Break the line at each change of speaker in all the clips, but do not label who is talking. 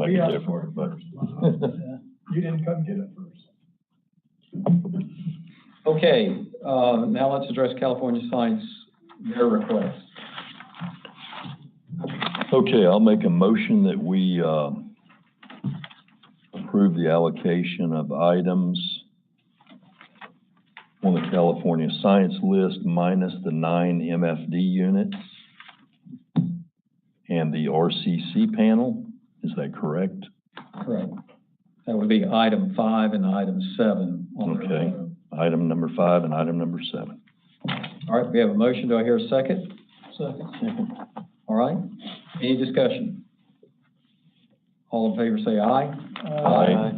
could
Yeah.
get for it, but.
You didn't come get it first.
Okay, uh, now let's address California Science, their request.
Okay, I'll make a motion that we uh, approve the allocation of items on the California Science List minus the nine MFD units and the RCC panel. Is that correct?
Correct. That would be item five and item seven on their.
Okay.
own.
Item number five and item number seven.
All right, we have a motion. Do I hear a second?
Second.
All right, any discussion? All in favor, say aye.
Aye.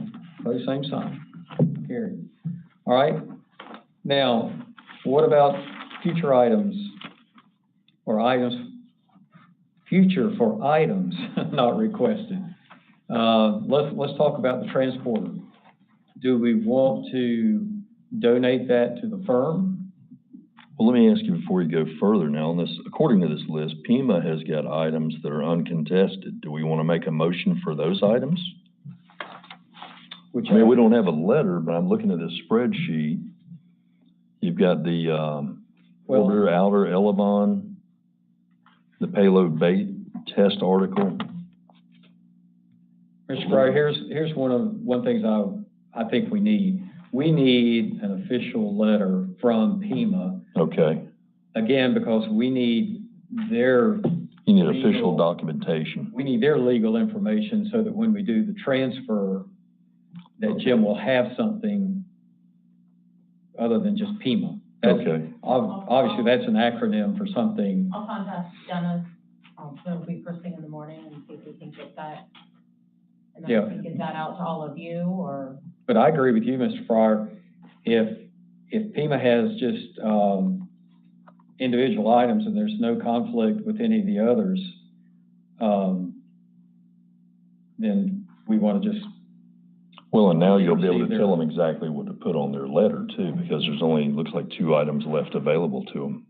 Pose same sign. Carried. All right. Now, what about future items? Or items, future for items not requested? Uh, let's, let's talk about the transporter. Do we want to donate that to the firm?
Well, let me ask you before you go further now, on this, according to this list, Pima has got items that are uncontested. Do we want to make a motion for those items?
Which
I mean, we don't have a letter, but I'm looking at this spreadsheet. You've got the, um,
Well-
order outer elevon, the payload bait test article.
Mr. Breyer, here's, here's one of, one things I, I think we need. We need an official letter from Pima,
Okay,
again, because we need their
you need official
Legal.
documentation.
we need their legal information so that when we do the transfer, that Jim will have something other than just Pima. That's-
Okay,
ob- Obviously, that's an acronym for something.
I'll contact Dennis, um, it'll be first thing in the morning and see if we can get that. And then
Yeah.
we can get that out to all of you or,
But I agree with you, Mr. Fryer. If, if Pima has just, um, individual items and there's no conflict with any of the others, um, then we want to just,
well, and now you'll be able
Receive
to
their-
tell them exactly what to put on their letter too, because there's only, looks like two items left available to them.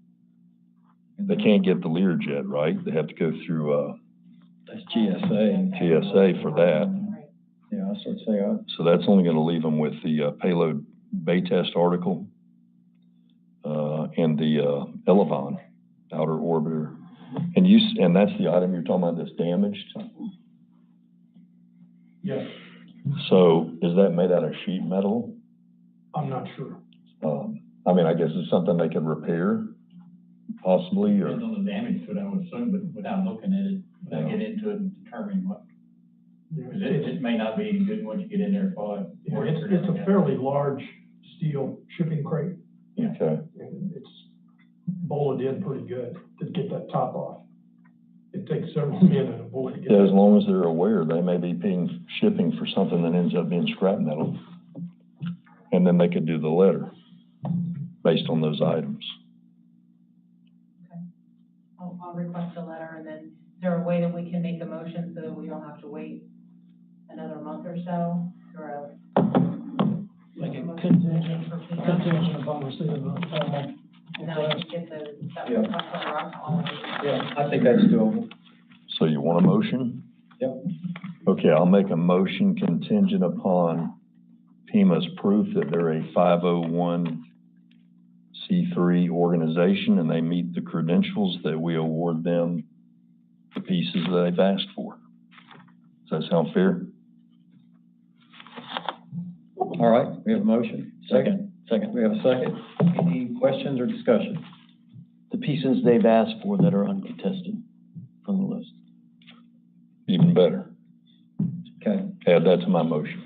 They can't get the Learjet, right? They have to go through, uh,
that's GSA.
GSA for that.
Right.
Yeah, I sort of say, uh,
So that's only gonna leave them with the uh, payload bay test article, uh, and the, uh, Elevon outer orbiter. And you, s- and that's the item you're talking about that's damaged?
Yeah,
So is that made out of sheet metal?
I'm not sure.
Um, I mean, I guess it's something they can repair possibly, or,
Depends on the damage to it, I would assume, but without looking at it, without getting into it and determining what,
Yeah,
because it,
It's,
it may not be any good once you get in there for it.
yeah, it's it's a fairly large steel shipping crate,
okay.
and it's bolted in pretty good to get that top off. It takes several men and a bullet to get
Yeah, as
it.
long as they're aware, they may be paying shipping for something that ends up being scrap metal. And then they could do the letter based on those items.
I'll, I'll request a letter and then is there a way that we can make a motion so that we don't have to wait another month or so? Or a.
Like a
contingent.
contingent upon receipt of a formal
And then I
request.
can get the, that
Yeah.
request letter out to all of you.
yeah, I think that's doable.
So you want a motion?
Yep.
Okay, I'll make a motion contingent upon Pima's proof that they're a five oh one C three organization and they meet the credentials that we award them the pieces that they've asked for. Does that sound fair?
All right, we have a motion. Second. Second. We have a second. Any questions or discussion?
the pieces they've asked for that are uncontested from the list.
Even better.
Okay,
Add that to my motion.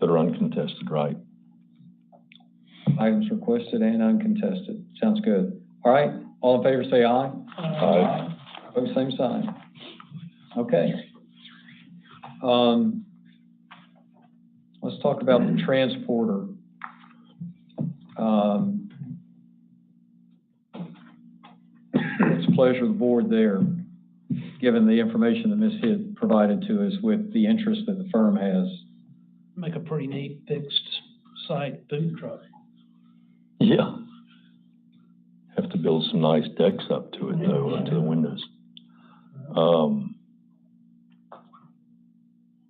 That are uncontested, right?
items requested and uncontested. Sounds good. All right, all in favor, say aye.
Aye.
Pose same sign. Okay. Um, let's talk about the transporter. Um, it's a pleasure of the board there, given the information that Ms. Hitt provided to us with the interest that the firm has.
Make a pretty neat fixed site food truck.
Yeah. Have to build some nice decks up to it though, up to the windows. Um,